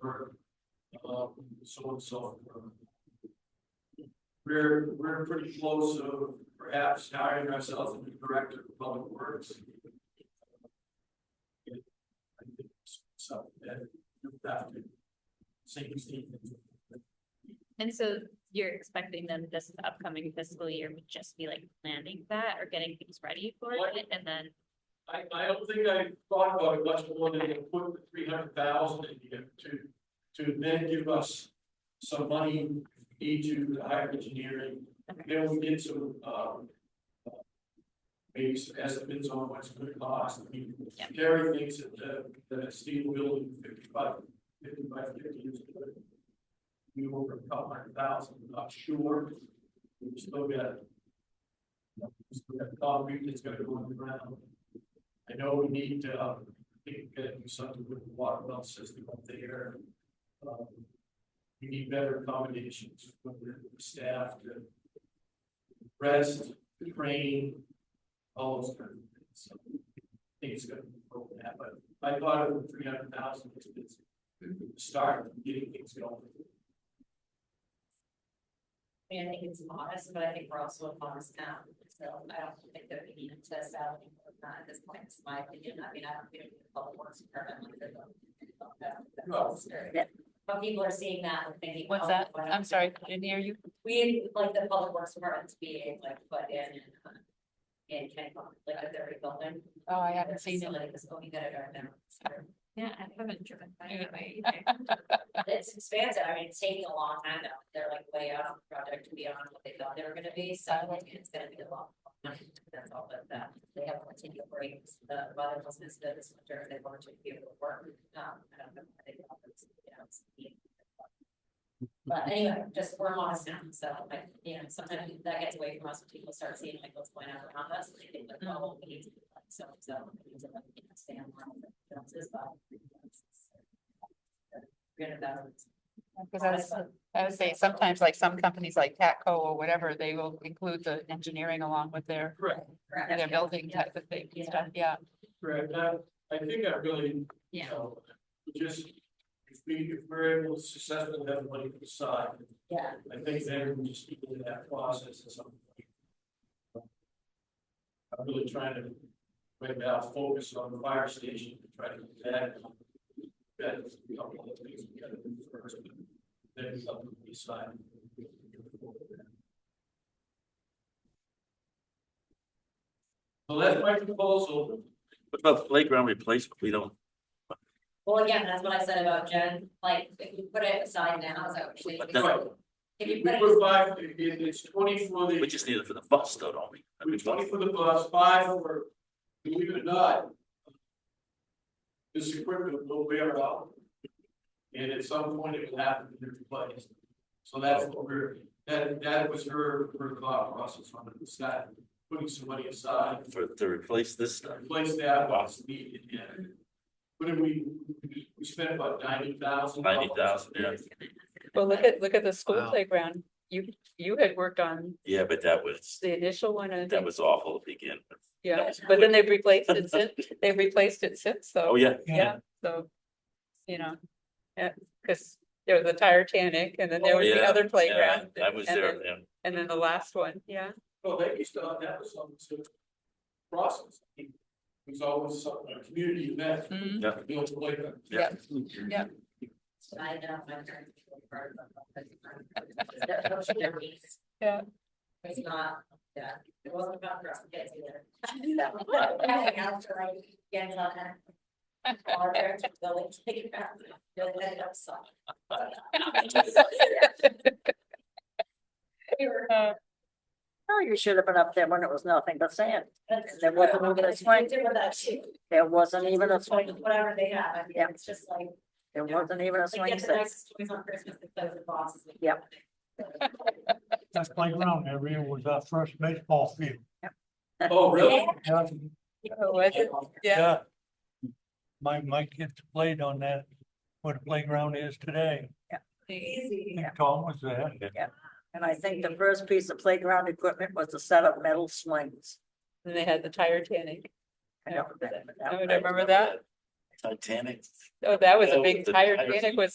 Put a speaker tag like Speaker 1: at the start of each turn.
Speaker 1: for, uh, so and so. We're, we're pretty close to perhaps hiring ourselves a new director of public works. And I think So that, that could sink in.
Speaker 2: And so you're expecting them this upcoming fiscal year would just be like planning that or getting things ready for
Speaker 1: What?
Speaker 2: it and then,
Speaker 1: I, I don't think I thought about it much more than to put the three hundred thousand in here to, to then give us some money into the higher engineering.
Speaker 2: Okay.
Speaker 1: Then we get some, um, uh, maybe some estimates on what's gonna cost. I mean,
Speaker 2: Yep.
Speaker 1: Gary thinks that, the the steel building fifty-five, fifty-five, fifty is good. We over a couple hundred thousand, not sure. We still got we still got concrete that's gonna go on the ground. I know we need to, uh, think, uh, do something with the water well system up there. Um, We need better accommodations for the staff to rest, train, all those kind of things. So I think it's gonna be over that, but I thought it was three hundred thousand expensive. Start getting things going.
Speaker 3: I mean, I think it's modest, but I think we're also a modest town, Um, so I don't think that we need to test out anymore, not uh, at this point, it's my opinion, I mean, I don't think the public works department. like, they don't- they don't have that
Speaker 1: No.
Speaker 3: monster. But people are seeing that and thinking.
Speaker 4: What's
Speaker 3: oh,
Speaker 4: that?
Speaker 3: why
Speaker 4: I'm
Speaker 3: not?
Speaker 4: sorry, I didn't hear you.
Speaker 3: We, like, the public works department to be like put in and. uh, In Kennecott, like, at their rebuilding.
Speaker 4: Oh, I haven't seen it.
Speaker 3: Like, this, oh, we gotta drive down.
Speaker 2: yeah, I haven't driven by
Speaker 4: Yeah.
Speaker 2: it either.
Speaker 3: It's expansive, I mean, it's taking a long time now, they're like way out on the project beyond what they thought they were gonna be, so like, it's gonna be a long. time. That's all, but that, they have continued breaks, the weather wasn't as good this winter, they wanted to be able to work, um, I don't know, I think. that was, you know, it's- But anyway, just we're lost now, so like, you know, sometimes that gets away from us, when people start seeing like what's going on around us, and they think like, oh, we need to be like, so, so, we need to like, you know, stay on. line with the fences, but. Three hundred thousand.
Speaker 4: Cause I was, I would say sometimes like some companies like Catco or whatever, they will include the engineering along with their,
Speaker 1: Correct,
Speaker 4: their building type of thing and stuff, yeah.
Speaker 1: correct. I, I think I really
Speaker 2: Yeah,
Speaker 1: So, Just, if we, if we're able to successfully have money to the side,
Speaker 3: Yeah,
Speaker 1: I think then we just get into that process at some point. I'm really trying to, right now, focus on the fire station, to try to do that. That's a couple of things we gotta do first, but then we have to decide. So that's my proposal.
Speaker 5: What about the playground replacement? We don't,
Speaker 3: well, again, that's what I said about Jen, like, if you put it aside now, is that what you
Speaker 5: But
Speaker 3: think?
Speaker 5: that-
Speaker 3: If
Speaker 1: We
Speaker 3: you put it,
Speaker 1: provide, it, it- it's twenty for the.
Speaker 5: we just need it for the bus though, don't we? I mean,
Speaker 1: With twenty for the bus, five for, believe it or not. This equipment will wear out. And at some point it will have to be replaced. So that's what we're, that, that was her, her thought process on it, was that putting some money aside,
Speaker 5: For, to replace this
Speaker 1: to
Speaker 5: stuff.
Speaker 1: replace that what's needed, yeah. What did we, we spent about ninety thousand.
Speaker 5: $90,000, yeah.
Speaker 4: Well, look at, look at the school
Speaker 5: Wow.
Speaker 4: playground. You, you had worked on
Speaker 5: Yeah, but that was,
Speaker 4: the initial one and
Speaker 5: that was awful to begin with.
Speaker 4: yeah, but then they've replaced it since, they've replaced it since, so.
Speaker 5: Oh, yeah.
Speaker 4: Yeah, so, you know, yeah, cause there was a Titanic and then there was the
Speaker 5: Oh, Yeah,
Speaker 4: other
Speaker 5: Yeah,
Speaker 4: playground.
Speaker 5: I was
Speaker 4: and
Speaker 5: there,
Speaker 4: then-
Speaker 5: yeah.
Speaker 4: And then the last one, yeah.
Speaker 1: Well, they used to, that was something to process. It was always something, a community event.
Speaker 4: Hmm. Mm-hmm.
Speaker 1: You know, it's like a-
Speaker 5: Yeah.
Speaker 4: Yeah.
Speaker 3: I know, my parents. were part of it. That was their piece.
Speaker 4: Yeah.
Speaker 3: It's not, yeah, it wasn't about for us kids either. Everything else, we're like, get it on that. All our parents were building, taking it out, building it up, so.
Speaker 4: Uh,
Speaker 6: Oh, you should have been up there when it was nothing but sand.
Speaker 3: That's
Speaker 6: There wasn't
Speaker 3: true.
Speaker 6: even a
Speaker 3: You
Speaker 6: swing.
Speaker 3: did with that too.
Speaker 6: There wasn't even a
Speaker 3: It's like
Speaker 6: swing.
Speaker 3: Whatever they have, I mean,
Speaker 6: Yeah.
Speaker 3: it's just like,
Speaker 6: There wasn't even a
Speaker 3: like
Speaker 6: swing
Speaker 3: get the
Speaker 6: set.
Speaker 3: nicest toys on Christmas, the clothes and boxes. like-
Speaker 6: Yep.
Speaker 7: That playground area was our first baseball field.
Speaker 1: Oh, really?
Speaker 7: Yeah,
Speaker 4: Oh, was it? Yeah,
Speaker 7: Yeah. My, my kids played on that, where the playground is today.
Speaker 3: Easy.
Speaker 7: And Tom was there.
Speaker 6: And I think the first piece of playground equipment was a set of metal swings.
Speaker 4: and they had the Titanic.
Speaker 6: I don't remember that.
Speaker 4: I would remember that.
Speaker 5: Titanic.
Speaker 4: Oh, that was a
Speaker 5: Oh,
Speaker 4: big
Speaker 5: the
Speaker 4: Titanic was